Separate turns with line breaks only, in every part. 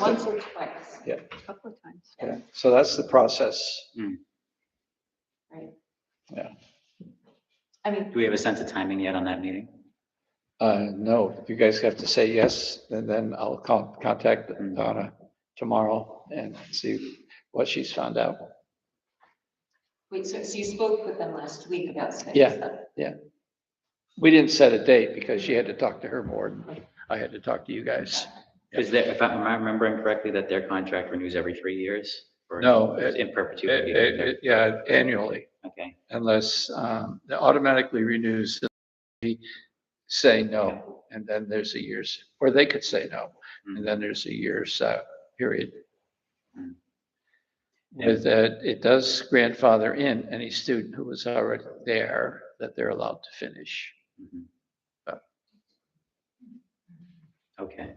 Once or twice.
Yeah.
A Couple of times.
Yeah, so that's the process.
Right.
Yeah.
I mean,
Do we have a sense of timing yet on that meeting?
Uh, no, if you guys have to say yes, and then I'll con- contact Donna tomorrow and see what she's found out.
wait, so, so you spoke with them last week about space?
Yeah. We didn't set a date because she had to talk to her board. I had to talk to you guys.
Is there, if I'm remembering correctly, that their contract renews every three years? Or
No,
is it In
It-
perpetuity?
it- it- Eh, Yeah, annually,
Okay,
unless um, it automatically renews, they say no, and then there's a year's, or they could say no, and then there's a year's uh, period.
Mm.
With that, it does grandfather in any student who was already there that they're allowed to finish.
Mhm.
Uh.
Okay,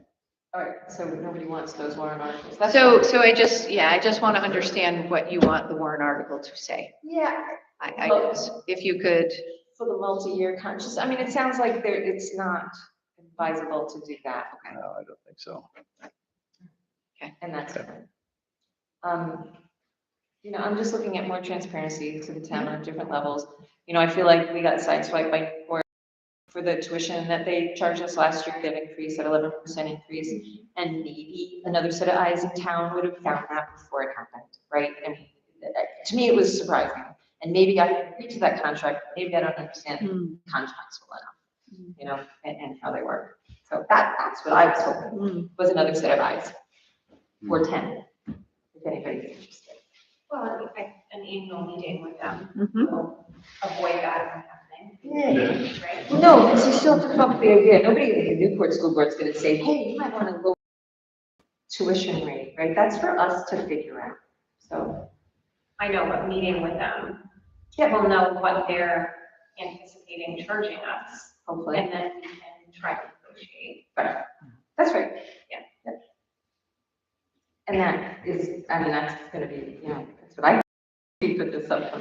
All right, so nobody wants those warrant articles. That's
So,
fine.
so I just, yeah, I just want to understand what you want the warrant article to say.
Yeah,
I, I guess, if you could,
for the multi-year conscious, I mean, it sounds like there, it's not advisable to do that,
No, I don't think so.
and that's
Okay.
fine. Um, you know, I'm just looking at more transparency to the town on different levels. You know, I feel like we got sideswiped by, or for the tuition that they charged us last year, that increase at eleven percent increase. And maybe another set of eyes in town would have found that before it happened, right? And uh, to me, it was surprising. And maybe I agreed to that contract, maybe I don't understand
Mm.
contracts well
Mm.
enough, you know, and, and how they work. So that, that's what I was
Mm.
hoping, was another set of eyes, or ten, if anybody's interested.
Well, I- I- an annual meeting with them
Mhm.
Mm-hmm.
will avoid that from
Yeah.
happening, right?
No, because you still have to come up with the idea, nobody in the Newport School Board's gonna say, hey, you might wanna go tuition rate, right? That's for us to figure out, so.
I know, but meeting with them,
Yeah, well,
we'll know what they're anticipating charging us,
hopefully,
and then we can try to negotiate.
that's right.
Yeah.
Yep. And that is, I mean, that's gonna be, you know, that's what I, we put this up.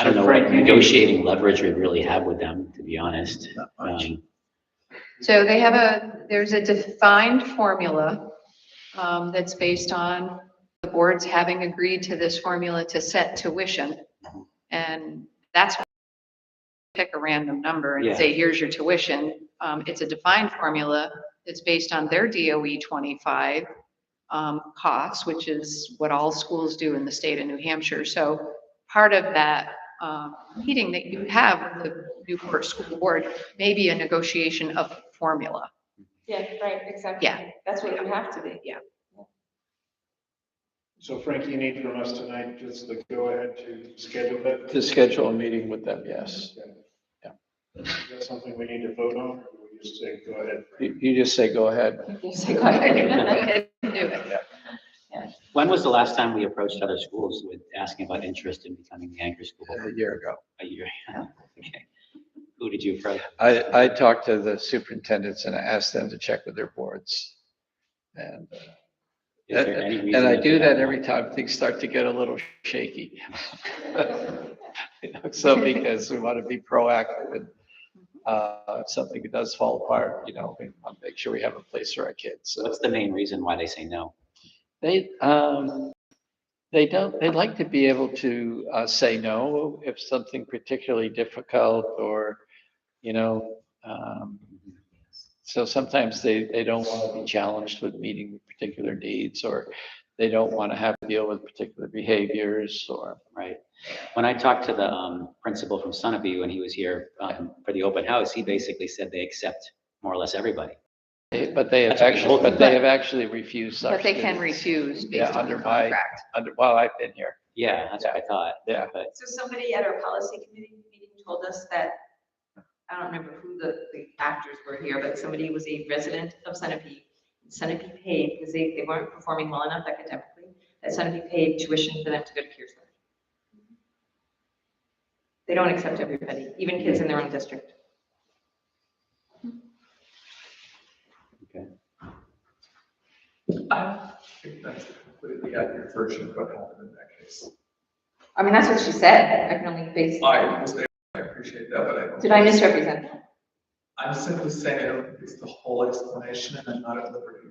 I don't
So
know what
Frank, you need-
negotiating leverage we really have with them, to be honest.
Not much.
Um,
so they have a, there's a defined formula um, that's based on the boards having agreed to this formula to set tuition. And that's, pick a random number
Yeah.
and say, here's your tuition. Um, it's a defined formula that's based on their DOE twenty-five um, costs, which is what all schools do in the state of New Hampshire. So part of that, um, meeting that you have with the Newport School Board may be a negotiation of formula.
Yeah, right, exactly.
Yeah.
That's what it would have to be.
So Frank, you need from us tonight just the go-ahead to schedule that?
To schedule a meeting with them, yes. Yeah.
Is that something we need to vote on, or do we just say go ahead?
You, you just say, go ahead.
Yes, I got it.
Do it.
When was the last time we approached other schools with asking about interest in becoming the anchor school?
A year ago.
A year? Okay. Who did you approach?
I, I talked to the superintendents and I asked them to check with their boards. And,
Is there any reason
and I
they
do that
don't
every time things start to get a little shaky. You know, So because we want to be proactive and uh, if something does fall apart, you know, we want to make sure we have a place for our kids. So
What's the main reason why they say no?
They, um, they don't, they'd like to be able to, uh, say no if something particularly difficult or, you know, um, so sometimes they, they don't want to be challenged with meeting particular needs or they don't want to have to deal with particular behaviors or,
Right. When I talked to the um, principal from Sunapee when he was here um, for the open house, he basically said they accept more or less everybody.
they- but they have
That's what they
actually,
told
but they have actually refused such.
But they can
students
refuse
Yeah,
based on the
under my-
contract.
under- While I've been here,
Yeah, that's what I thought.
yeah.
But
So somebody at our policy committee meeting told us that, I don't remember who the, the actors were here, but somebody was a resident of Centipede. Centipede paid, because they, they weren't performing well enough academically, that Centipede paid tuition for them to go to Pearson. They don't accept everybody, even kids in their own district.
That's a completely accurate version of what happened in that case.
I mean, that's what she said, I can only base.
I, I appreciate that, but I don't.
Did I misrepresent that?
I'm simply saying it's the whole explanation and I'm not at liberty